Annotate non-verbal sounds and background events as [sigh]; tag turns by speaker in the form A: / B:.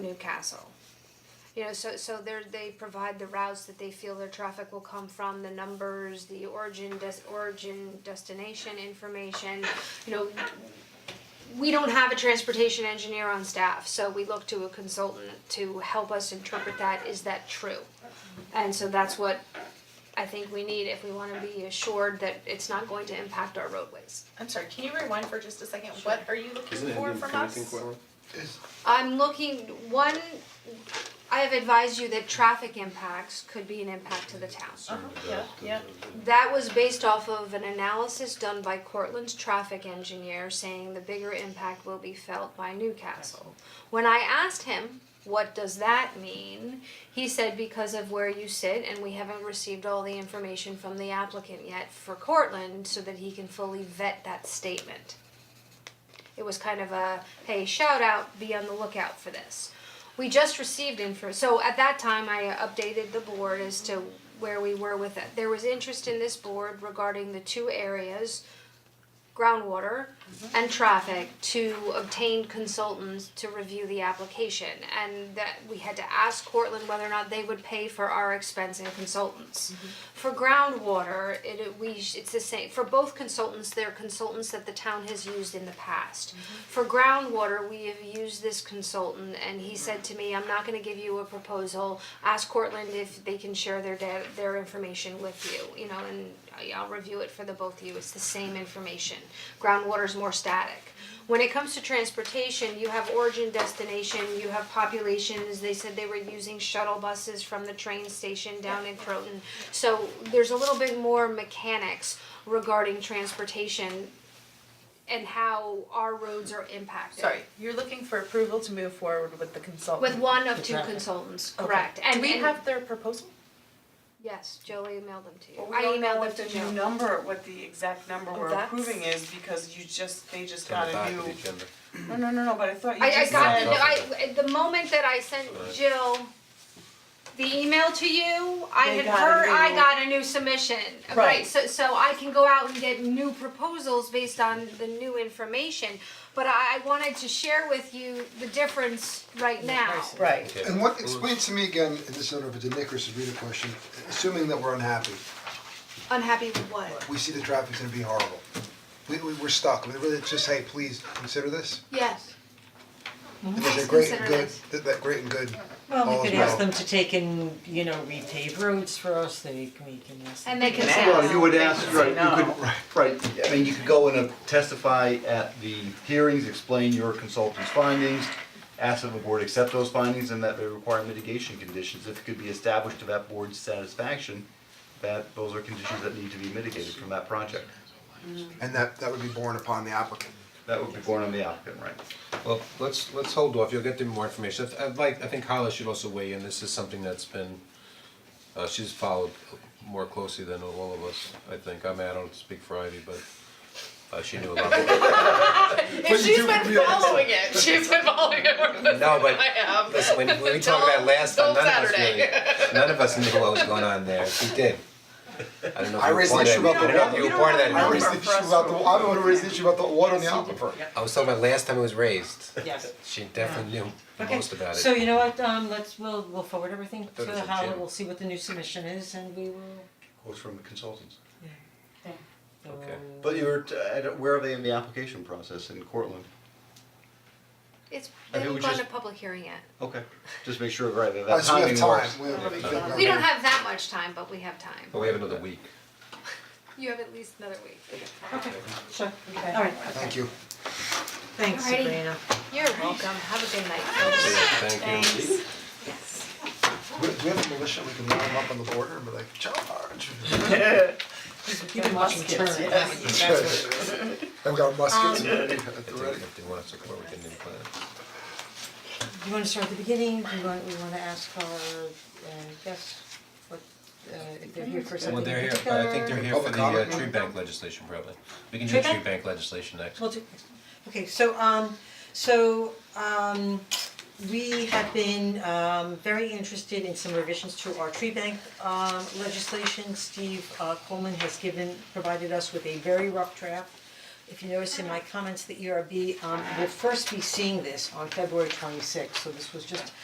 A: Newcastle. You know, so so they're they provide the routes that they feel their traffic will come from, the numbers, the origin des- origin destination information, you know. We don't have a transportation engineer on staff, so we look to a consultant to help us interpret that, is that true? And so that's what I think we need if we wanna be assured that it's not going to impact our roadways.
B: I'm sorry, can you rewind for just a second? What are you looking
C: Isn't it
B: for
C: in
B: from
C: connecting
B: us?
C: corridor?
A: I'm looking, one, I have advised you that traffic impacts could be an impact to the town.
B: Uh-huh, yeah, yeah.
A: That was based off of an analysis done by Cortland's traffic engineer saying the bigger impact will be felt by Newcastle. When I asked him, what does that mean? He said because of where you sit and we haven't received all the information from the applicant yet for Cortland so that he can fully vet that statement. It was kind of a, hey, shout out, be on the lookout for this. We just received info, so at that time I updated the board as to where we were with it. There was interest in this board regarding the two areas, groundwater and traffic, to obtain consultants to review the application. And that we had to ask Cortland whether or not they would pay for our expense and consultants. For groundwater, it it- we sh- it's the same, for both consultants, they're consultants that the town has used in the past. For groundwater, we have used this consultant and he said to me, I'm not gonna give you a proposal, ask Cortland if they can share their da- their information with you, you know, and I- I'll review it for the both of you, it's the same information. Groundwater's more static. When it comes to transportation, you have origin, destination, you have populations, they said they were using shuttle buses from the train station down in Croton. So there's a little bit more mechanics regarding transportation and how our roads are impacted.
B: Sorry, you're looking for approval to move forward with the consultant.
A: With one of two consultants,
B: Okay.
A: correct, and
B: Do we
A: and-
B: have their proposal?
A: yes, Jolie emailed them to you,
D: Well, we
A: I
D: don't know
A: emailed
D: what
A: them
D: the
A: to
D: new
A: Joe.
D: number, what the exact number
B: Oh,
D: we're
B: that's-
D: approving is, because you just, they just
C: On
D: got
C: the back of
D: a
C: the
D: new.
C: agenda.
D: No, no, no, no, but I thought you
A: I I
D: just
A: got
D: said,
A: the, I, the moment that I sent
C: Right.
A: Jill the email to you, I
D: They
A: had
D: got a
A: heard, I
D: new-
A: got a new submission, right,
D: Right.
A: so so I can go out and get new proposals based on the new information. But I I wanted to share with you the difference right now.
B: Right.
C: Okay.
E: And what, explain to me again, and this, I don't know if it's a Nick or Sabrina question, assuming that we're unhappy,
A: Unhappy with what?
E: we see the traffic's gonna be horrible. We, we, we're stuck, we really just, hey, please, consider this,
A: Yes.
E: and there's a great and
A: Mm-hmm. consider
E: good,
A: this.
E: that, that great and good,
F: Well,
E: All's
F: we could ask
E: well.
F: them to take in, you know, repave roads for us, they, can- we can ask them.
A: And they can say.
G: Well, you would ask, right, you
D: no.
G: could, right, I mean, you could go in and testify at the hearings, explain your consultant's findings, ask if the board accept those findings, and that they require mitigation conditions, if it could be established to that board's satisfaction, that those are conditions that need to be mitigated from that project.
E: and that, that would be borne upon the applicant.
G: That would be borne on the applicant, right?
H: Well, let's, let's hold off, you'll get them more information, I'd- I'd like, I think Carla should also weigh in, this is something that's been, uh, she's followed more closely than all of us, I think, I mean, I don't speak for Ivy, but, uh, she knew a lot more.
B: [laughs] If she's been following it, she's been following it more than
H: No, but,
B: I have.
H: listen, when when we talked about it last time,
B: Till- till
H: none of us
B: Saturday.
H: really, none of us knew what was going on there, she did. I don't know
E: I
H: if you were
E: raised the
H: part
E: issue
H: of that,
E: about
H: I
E: the
H: don't know if you were part of that
E: I
H: meeting.
E: raised the issue about the, I'm the one who raised the issue about the water on the aquifer.
H: I was talking about last time it was raised,
F: Yes.
H: she definitely knew
F: Okay,
H: most about it.
F: so you know what, um, let's, we'll, we'll forward everything
H: thought
F: to
H: it was a
F: Howard,
H: gym.
F: we'll see what the new submission is and we will,
G: Quotes from the consultants.
H: Okay.
F: um,
G: But you were, t- I don't- where are they in the application process in Cortland?
A: It's,
G: I
A: they
G: think
A: haven't
G: we
A: gone to
G: just-
A: public hearing yet.
G: Okay, just make sure, right, that
E: Uh,
G: that
E: so we have
G: timing
E: time,
G: works.
E: we have.
A: We don't have that much time, but we have time.
H: But we have another week.
A: You have at least another week.
F: Okay, sure, alright,
E: Thank you.
F: thanks
A: Alrighty.
F: Sabrina.
A: You're welcome, have a good night, folks.
H: Thank you.
E: We, we have a militia, we can line them up on the border and be like, [laughs] charge.
F: You've been watching Turner.
E: I've got muskets.
H: I think if they want us to come over, we can do that.
F: Do you wanna start at the beginning, do you want, we wanna ask our, uh, guests, what, uh, if they're here for
H: Well,
F: something
H: they're
F: in
H: here, but I think
F: particular?
H: they're here for
E: Public
H: the uh,
E: comment?
H: tree bank legislation probably. We can
F: Tree
H: do tree
F: bank?
H: bank legislation next.
F: We'll do, okay, so um, so um, we have been um very interested in some revisions to our tree bank um legislation. Steve uh, Coleman has given, provided us with a very rough draft. If you notice in my E comments, the ERB um will first be seeing this on February twenty sixth, so this was just